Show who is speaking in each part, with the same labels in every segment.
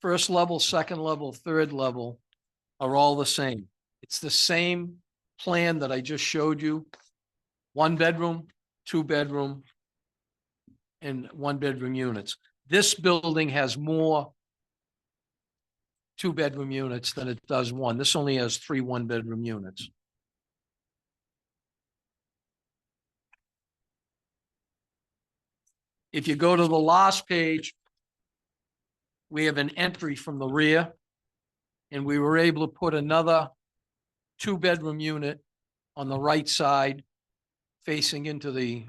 Speaker 1: first level, second level, third level are all the same. It's the same plan that I just showed you. One bedroom, two bedroom, and one bedroom units. This building has more two bedroom units than it does one. This only has three one bedroom units. If you go to the last page, we have an entry from the rear. And we were able to put another two-bedroom unit on the right side facing into the,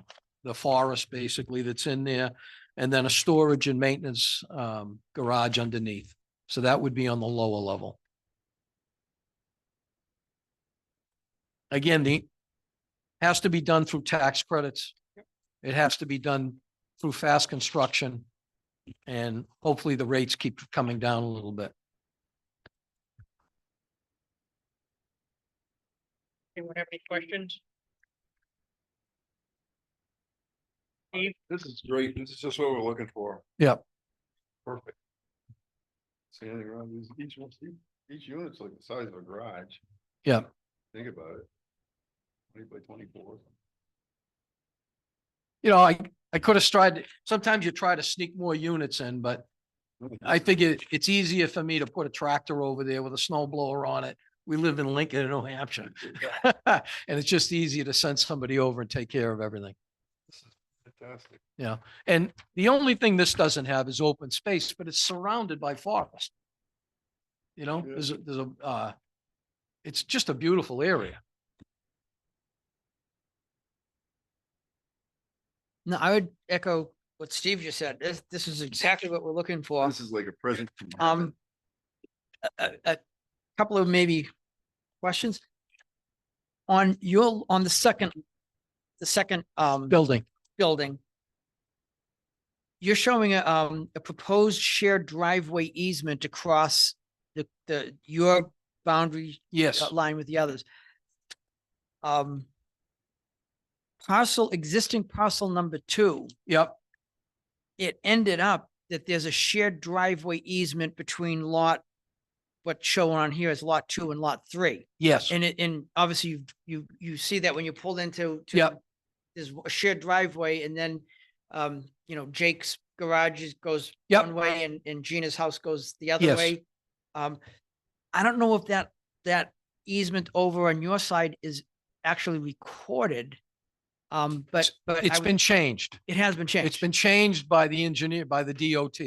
Speaker 1: the forest basically that's in there. And then a storage and maintenance um, garage underneath. So that would be on the lower level. Again, the, has to be done through tax credits. It has to be done through fast construction. And hopefully the rates keep coming down a little bit.
Speaker 2: Anyone have any questions?
Speaker 3: This is great. This is just what we're looking for.
Speaker 1: Yep.
Speaker 3: Perfect. See anything wrong with these- each one, each- each unit's like the size of a garage.
Speaker 1: Yep.
Speaker 3: Think about it. Twenty by twenty-four.
Speaker 1: You know, I, I could have tried, sometimes you try to sneak more units in, but I figure it's easier for me to put a tractor over there with a snow blower on it. We live in Lincoln, New Hampshire. And it's just easier to send somebody over and take care of everything.
Speaker 3: This is Fantastic.
Speaker 1: And the only thing this doesn't have is open space, but it's surrounded by forest. You know,
Speaker 3: Yeah.
Speaker 1: there's a, there's a, uh, it's just a beautiful area.
Speaker 2: No, I would echo what Steve just said. This, this is exactly what we're looking for.
Speaker 3: This is like a present. from heaven.
Speaker 2: Um, a, a- a couple of maybe questions. On your, on the second, the second, um,
Speaker 1: Building,
Speaker 2: building. You're showing a, um, a proposed shared driveway easement across the, the, your boundary
Speaker 1: yes,
Speaker 2: uh, line with the others. Um. Parcel, existing parcel number two,
Speaker 1: yep,
Speaker 2: it ended up that there's a shared driveway easement between lot. What's shown on here is lot two and lot three,
Speaker 1: yes,
Speaker 2: and it, and obviously you, you, you see that when you pull into. to
Speaker 1: Yep.
Speaker 2: There's a shared driveway and then, um, you know, Jake's garage is- goes
Speaker 1: Yep.
Speaker 2: one way and, and Gina's house goes the other
Speaker 1: Yes.
Speaker 2: way. Um, I don't know if that, that easement over on your side is actually recorded. Um, but, but I
Speaker 1: it's
Speaker 2: would-
Speaker 1: been changed.
Speaker 2: it has been
Speaker 1: It's
Speaker 2: changed.
Speaker 1: been changed by the engineer, by the DOT.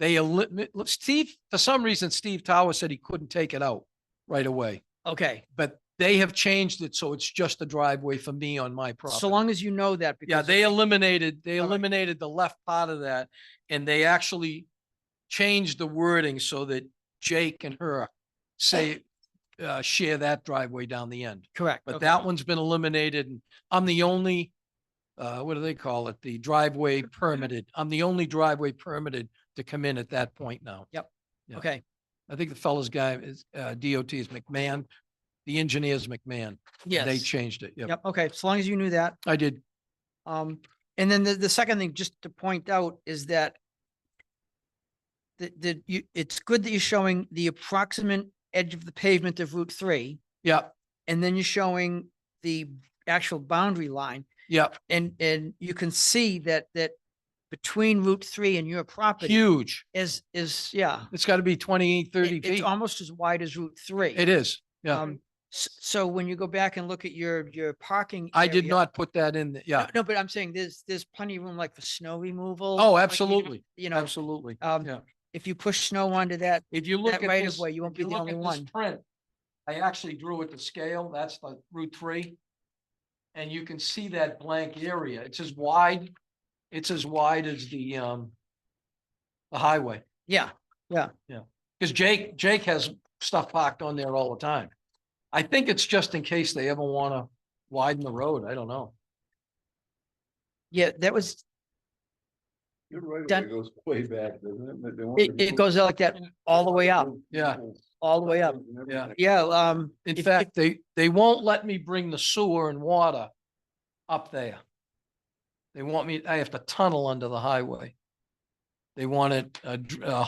Speaker 1: They eliminate, Steve, for some reason, Steve Tower said he couldn't take it out right away.
Speaker 2: Okay.
Speaker 1: But they have changed it, so it's just a driveway for me on my property.
Speaker 2: So long as you know that.
Speaker 1: Yeah,
Speaker 2: because
Speaker 1: they eliminated, they
Speaker 2: All right.
Speaker 1: eliminated the left part of that and they actually changed the wording so that Jake and her say, uh, share that driveway down the end.
Speaker 2: Correct.
Speaker 1: But
Speaker 2: okay.
Speaker 1: that one's been eliminated and I'm the only, uh, what do they call it? The driveway permitted. I'm the only driveway permitted to come in at that point now. yeah.
Speaker 2: Okay.
Speaker 1: I think the fellow's guy is, uh, DOT is McMahon. The engineer's McMahon.
Speaker 2: Yes.
Speaker 1: They changed it. Yep,
Speaker 2: Yep. Okay. So long as you knew that.
Speaker 1: I did.
Speaker 2: Um, and then the, the second thing, just to point out, is that the, the, you, it's good that you're showing the approximate edge of the pavement of Route Three,
Speaker 1: Yep,
Speaker 2: and then you're showing the actual boundary line.
Speaker 1: yep.
Speaker 2: And, and you can see that, that between Route Three and your property
Speaker 1: Huge.
Speaker 2: is, is, yeah.
Speaker 1: It's got to be 20, 30
Speaker 2: it- It's
Speaker 1: feet.
Speaker 2: almost as wide as Route Three.
Speaker 1: It is, yeah.
Speaker 2: Um, s- so when you go back and look at your, your parking.
Speaker 1: I did
Speaker 2: area-
Speaker 1: not put that in, the- yeah.
Speaker 2: No, No, but I'm saying there's, there's plenty of room like for snow removal.
Speaker 1: Oh,
Speaker 2: like, you know,
Speaker 1: absolutely,
Speaker 2: You know,
Speaker 1: absolutely.
Speaker 2: um,
Speaker 1: yeah.
Speaker 2: if you push snow onto that,
Speaker 1: If you look
Speaker 2: that
Speaker 1: at
Speaker 2: right of
Speaker 1: this-
Speaker 2: way, you won't
Speaker 1: if
Speaker 2: be
Speaker 1: you
Speaker 2: the
Speaker 1: look
Speaker 2: only
Speaker 1: at this
Speaker 2: one.
Speaker 1: Print, I actually drew it to scale, that's the Route three. And you can see that blank area, it's as wide, it's as wide as the, um, the highway,
Speaker 2: Yeah,
Speaker 1: because Jake, Jake has stuff parked on there all the time. I think it's just in case they ever want to widen the road, I don't know.
Speaker 2: yeah, that was,
Speaker 3: You're right.
Speaker 2: done-
Speaker 3: It goes way back, doesn't it? But they want
Speaker 2: it,
Speaker 3: to
Speaker 2: it
Speaker 3: go-
Speaker 2: goes out like that all the way up,
Speaker 1: Yeah.
Speaker 2: all the way up.
Speaker 3: Yeah.
Speaker 2: Yeah, um.
Speaker 1: In
Speaker 2: if- if-
Speaker 1: fact, they, they won't let me bring the sewer and water up there. They want me, I have to tunnel under the highway. They want it, uh, dr- uh,